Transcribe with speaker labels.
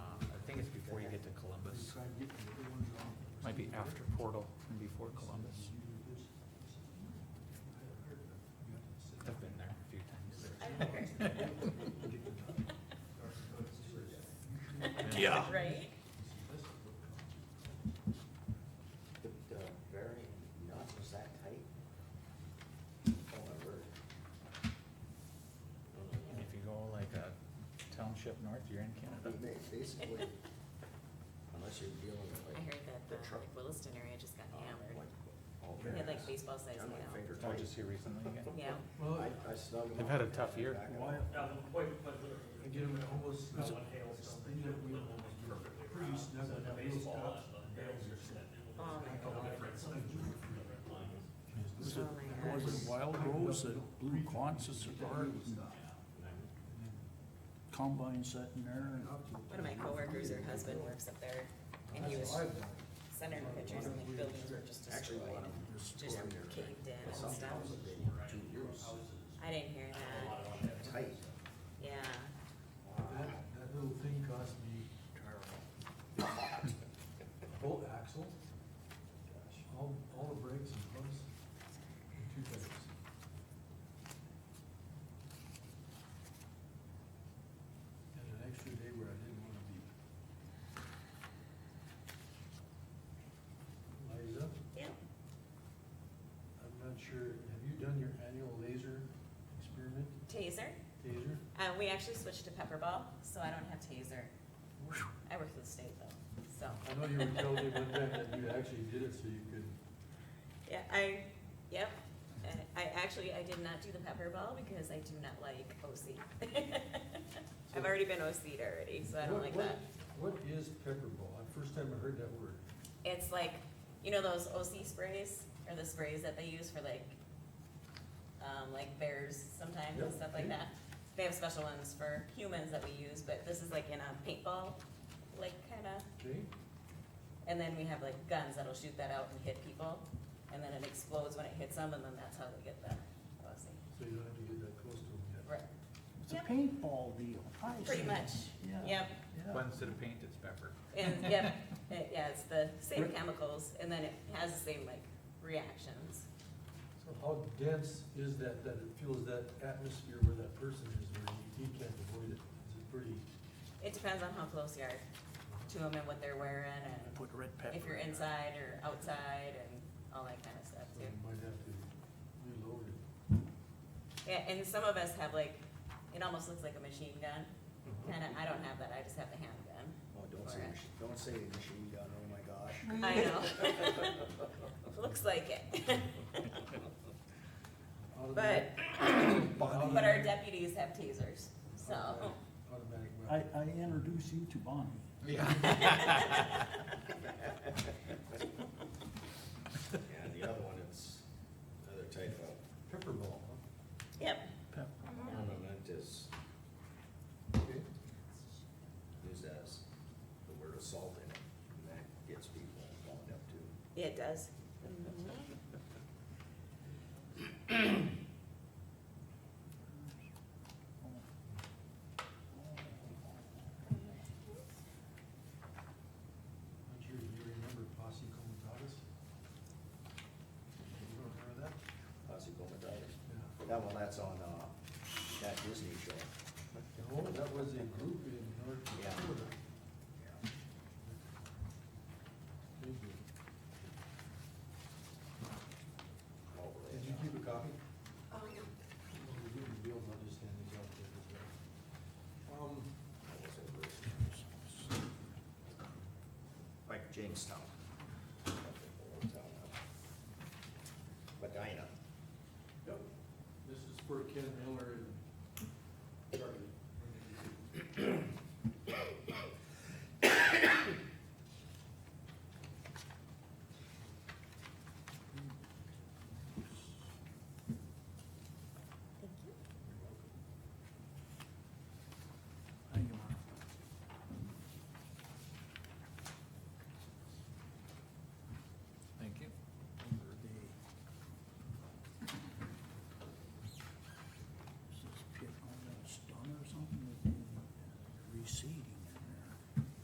Speaker 1: Um, Might be after Portal and before Columbus. I've been there a few times. Yeah.
Speaker 2: Right?
Speaker 3: The, the bearing nut was that tight? Oh my word.
Speaker 1: And if you go like a township north, you're in
Speaker 3: I
Speaker 1: Canada.
Speaker 3: mean, ba- Basically, unless you're dealing with
Speaker 2: I
Speaker 3: like.
Speaker 2: heard that the
Speaker 3: the truck,
Speaker 2: Williston area just got
Speaker 3: uh,
Speaker 2: hammered.
Speaker 3: like, all
Speaker 2: They had like
Speaker 3: bearings.
Speaker 2: baseball sized
Speaker 3: Done like
Speaker 2: hail.
Speaker 3: finger
Speaker 1: Oh,
Speaker 3: tight.
Speaker 1: just here recently again?
Speaker 2: Yeah,
Speaker 4: Well,
Speaker 3: I, I snug 'em
Speaker 1: They've
Speaker 3: up
Speaker 1: had a
Speaker 3: and
Speaker 1: tough year.
Speaker 3: back 'em
Speaker 4: why,
Speaker 3: up.
Speaker 5: Yeah, the point, but
Speaker 4: I get them almost,
Speaker 6: uh,
Speaker 5: that
Speaker 4: it's
Speaker 5: one hails something.
Speaker 4: you know, we almost get pretty snug
Speaker 5: So
Speaker 4: with
Speaker 5: the
Speaker 4: the wheels
Speaker 5: baseball,
Speaker 4: up,
Speaker 5: uh, hails your set.
Speaker 2: Oh, my God.
Speaker 6: Was
Speaker 2: Oh
Speaker 6: it,
Speaker 2: my
Speaker 6: was
Speaker 2: gosh.
Speaker 6: it Wild Rose that blew concerts at our combine sitting there? and-
Speaker 2: one of my coworkers, her husband works up there and he was sending pictures and like buildings were just
Speaker 3: Actually,
Speaker 2: destroyed
Speaker 3: one of
Speaker 2: and
Speaker 3: them was
Speaker 2: just
Speaker 3: pulling their-
Speaker 2: caved in and
Speaker 3: Some
Speaker 2: stuff.
Speaker 3: houses been two years
Speaker 2: I didn't hear that,
Speaker 3: tight.
Speaker 2: yeah.
Speaker 4: that, that little thing cost me both axle, all, all the brakes and pumps, and two tires. And an extra day where I didn't wanna be. Liza,
Speaker 2: Yep.
Speaker 4: I'm not sure, have you done your annual laser experiment,
Speaker 2: Taser,
Speaker 4: taser?
Speaker 2: uh, we actually switched to pepperball, so I don't have taser. I work for the state though, so.
Speaker 4: I know you were telling me one time that you actually did it so you could,
Speaker 2: Yeah, I, yep, And I actually, I did not do the pepper ball because I do not like OC. I've already been OC'd already, so I don't
Speaker 4: What-
Speaker 2: like
Speaker 4: what-
Speaker 2: that.
Speaker 4: what is pepperball? Uh, First time I heard that word.
Speaker 2: It's like, you know those OC sprays, or the sprays that they use for like, um, like bears sometimes and
Speaker 4: Yep.
Speaker 2: stuff like that? They have special ones for humans that we use, but this is like in a paintball, like kinda,
Speaker 4: Okay,
Speaker 2: and then we have like guns that'll shoot that out and hit people, and then it explodes when it hits them, and then that's how they get the OC.
Speaker 4: so you don't have to get that close to them yet.
Speaker 2: Right,
Speaker 6: It's a
Speaker 2: Yep.
Speaker 6: paintball deal. I
Speaker 2: pretty
Speaker 6: see.
Speaker 2: much,
Speaker 6: Yeah.
Speaker 2: yep,
Speaker 6: Yeah.
Speaker 1: But instead of paint, it's pepper.
Speaker 2: and yep, it, yeah, it's the same chemicals, and then it has the same like reactions.
Speaker 4: So how dense is that, that it feels that atmosphere where that person is, where he, he can't avoid it? Is it pretty?
Speaker 2: It depends on how close you are to them and what they're wearing,
Speaker 6: I
Speaker 2: and
Speaker 6: Put red pepper.
Speaker 2: if you're
Speaker 6: in it.
Speaker 2: inside or outside, and all that kind of stuff
Speaker 4: so
Speaker 2: too.
Speaker 4: You might have to reload it.
Speaker 2: Yeah, and some of us have like, it almost looks like a machine gun, kinda, I don't have that, I just have the handgun.
Speaker 3: Oh, don't say,
Speaker 2: Alright.
Speaker 3: machi- don't say machine gun, oh my gosh.
Speaker 2: I know. Looks like it,
Speaker 4: Out of
Speaker 2: but,
Speaker 4: that-
Speaker 1: Oh,
Speaker 4: Body-
Speaker 2: but our deputies have tasers, so.
Speaker 4: automatic- Automatic
Speaker 6: I,
Speaker 4: weapon.
Speaker 6: I introduce you to Bonnie.
Speaker 1: Yeah.
Speaker 3: And the other one, it's another type of
Speaker 4: Pepperball, huh?
Speaker 2: Yep.
Speaker 6: Pepper.
Speaker 3: ornament is
Speaker 4: Okay.
Speaker 3: used as the word assault in it, and that gets people wound up too.
Speaker 2: Yeah, it does.
Speaker 4: I'm sure you remember posse comitatus? You don't remember that?
Speaker 3: Posse Comitatus.
Speaker 4: Yeah.
Speaker 3: That one, that's on, uh, that Disney show.
Speaker 4: Oh, that was a group in North
Speaker 3: Yeah.
Speaker 4: Dakota.
Speaker 3: Yeah.
Speaker 4: Did
Speaker 3: Over
Speaker 4: you
Speaker 3: it.
Speaker 4: keep a copy?
Speaker 2: Oh, no.
Speaker 4: Well, we wouldn't be able to understand these out there as well. Um,
Speaker 3: That was over it. Like Jamestown. Medina.
Speaker 4: this is for Ken Miller.